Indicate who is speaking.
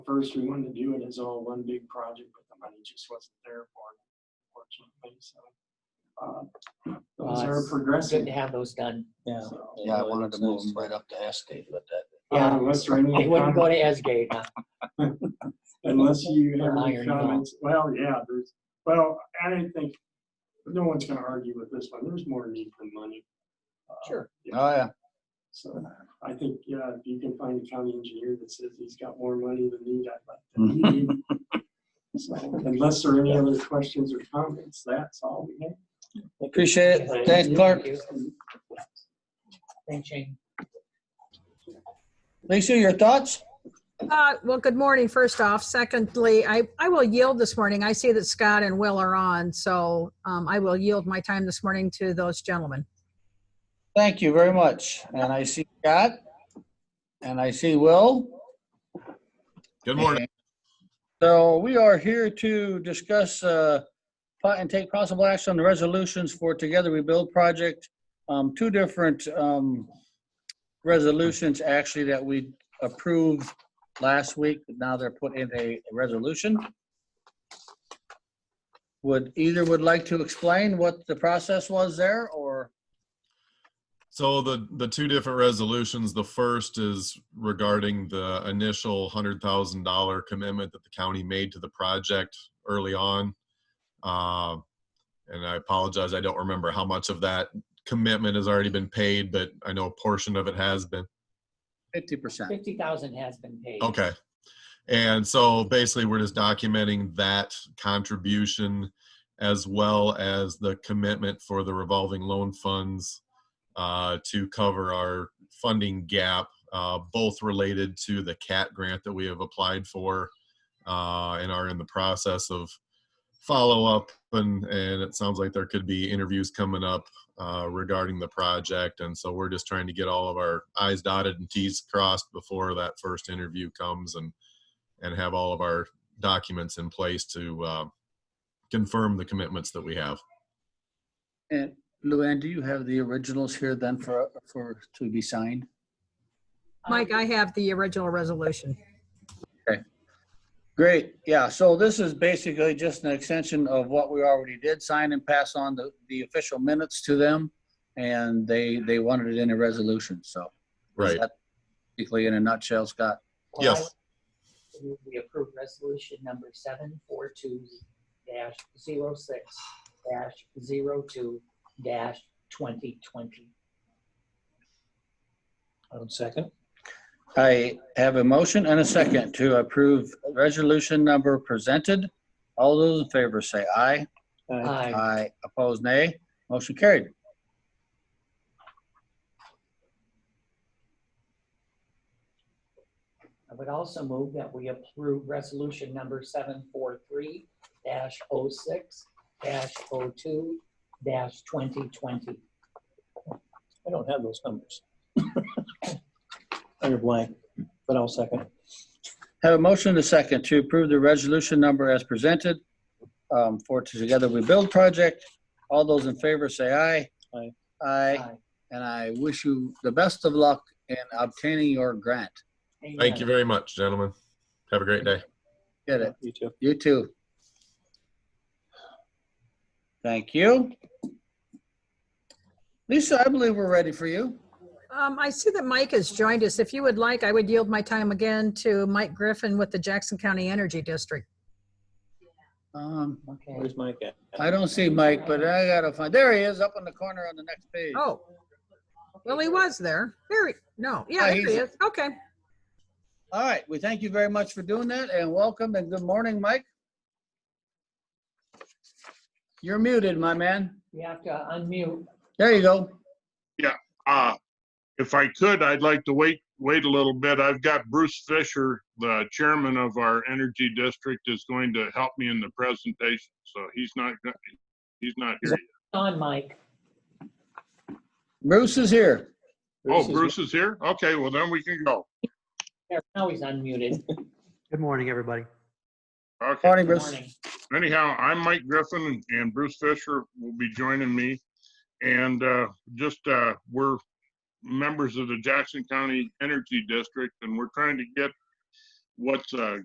Speaker 1: First, we wanted to do it as all one big project, but the money just wasn't there for it, unfortunately, so. uh, Those are
Speaker 2: Nice. Good
Speaker 1: progressing.
Speaker 2: to have those done.
Speaker 3: Yeah.
Speaker 1: so,
Speaker 4: Yeah, I
Speaker 3: Yeah, it
Speaker 4: wanted to
Speaker 3: looks
Speaker 4: move
Speaker 3: nice.
Speaker 4: them right up to Estate, but that,
Speaker 1: uh,
Speaker 2: Yeah.
Speaker 1: Unless there are any
Speaker 2: They wouldn't go
Speaker 1: comments-
Speaker 2: to Esgate, huh?
Speaker 1: unless you have any
Speaker 2: Iron Dome.
Speaker 1: comments. Well, yeah, there's, well, I didn't think, no one's gonna argue with this one. There's more need for money. Uh,
Speaker 2: Sure.
Speaker 1: yeah.
Speaker 4: oh, yeah.
Speaker 1: So I think, yeah, if you can find a county engineer that says he's got more money than need, I'd like to. meet him. So Unless there are any other questions or comments, that's all we have.
Speaker 4: Appreciate it.
Speaker 2: Thank
Speaker 4: Thanks,
Speaker 2: you.
Speaker 4: Clark.
Speaker 2: Thank you.
Speaker 4: Lisa, your thoughts?
Speaker 5: Uh, Well, good morning, first off. Secondly, I, I will yield this morning. I see that Scott and Will are on, so um, I will yield my time this morning to those gentlemen.
Speaker 4: Thank you very much. And I see Scott. And I see Will.
Speaker 6: Good morning.
Speaker 4: So we are here to discuss uh, po- and take possible action on the resolutions for Together We Build project. Um, Two different um, resolutions actually that we approved last week. but Now they're put in a resolution. Would either would like to explain what the process was there or?
Speaker 6: So the, the two different resolutions, the first is regarding the initial hundred thousand dollar commitment that the county made to the project early on. Uh, And I apologize, I don't remember how much of that commitment has already been paid, but I know a portion of it has been.
Speaker 4: Fifty percent.
Speaker 2: Fifty thousand has been paid.
Speaker 6: Okay. And so basically, we're just documenting that contribution as well as the commitment for the revolving loan funds uh, to cover our funding gap, uh, both related to the CAT grant that we have applied for uh, and are in the process of follow up. And, and it sounds like there could be interviews coming up uh, regarding the project. And so we're just trying to get all of our I's dotted and T's crossed before that first interview comes and, and have all of our documents in place to uh, confirm the commitments that we have.
Speaker 4: And Luann, do you have the originals here then for, for, to be signed?
Speaker 5: Mike, I have the original resolution.
Speaker 4: Great, yeah, so this is basically just an extension of what we already did, sign and pass on the, the official minutes to them. And they, they wanted it in a resolution, so. is
Speaker 6: Right.
Speaker 4: that Basically in a nutshell, Scott.
Speaker 2: Well, I
Speaker 6: Yes.
Speaker 2: move We approve resolution number seven four two dash zero six dash zero two dash twenty twenty.
Speaker 3: One second.
Speaker 4: I have a motion and a second to approve resolution number presented. All those in favor say aye.
Speaker 3: Uh,
Speaker 2: Aye.
Speaker 4: Aye. Opposed, nay. Motion carried.
Speaker 2: I would also move that we approve resolution number seven four three dash oh six dash oh two dash twenty twenty.
Speaker 3: I don't have those numbers. Under blank, but I'll second.
Speaker 4: Have a motion and a second to approve the resolution number as presented um, for Together We Build project. All those in favor say aye.
Speaker 3: Aye.
Speaker 4: Aye,
Speaker 2: Aye.
Speaker 4: and I wish you the best of luck in obtaining your grant.
Speaker 6: Thank you very much, gentlemen. Have a great day.
Speaker 4: Get it?
Speaker 3: You too.
Speaker 4: You too. Thank you. Lisa, I believe we're ready for you.
Speaker 5: Um, I see that Mike has joined us. If you would like, I would yield my time again to Mike Griffin with the Jackson County Energy District.
Speaker 4: Um,
Speaker 2: Okay.
Speaker 3: Where's Mike at?
Speaker 4: I don't see Mike, but I gotta find, there he is, up in the corner on the next page.
Speaker 5: Oh, well, he was there. There, he- no,
Speaker 4: Ah,
Speaker 5: yeah, there he
Speaker 4: he's-
Speaker 5: is. Okay.
Speaker 4: All right, we thank you very much for doing that and welcome and good morning, Mike. You're muted, my man.
Speaker 2: You have to unmute.
Speaker 4: There you go.
Speaker 7: Uh, if I could, I'd like to wait, wait a little bit. I've got Bruce Fisher, the chairman of our energy district, is going to help me in the presentation, so he's not, go- he's not here. yet.
Speaker 2: On, Mike.
Speaker 4: Bruce is here.
Speaker 7: Oh,
Speaker 3: is-
Speaker 7: Bruce is here? Okay, well then we can go.
Speaker 2: There, Now he's unmuted.
Speaker 8: Good morning, everybody.
Speaker 7: Okay.
Speaker 4: Morning, Bruce.
Speaker 2: Morning.
Speaker 7: Anyhow, I'm Mike Griffin and Bruce Fisher will be joining me. And uh, just, uh, we're members of the Jackson County Energy District and we're trying to get what's uh,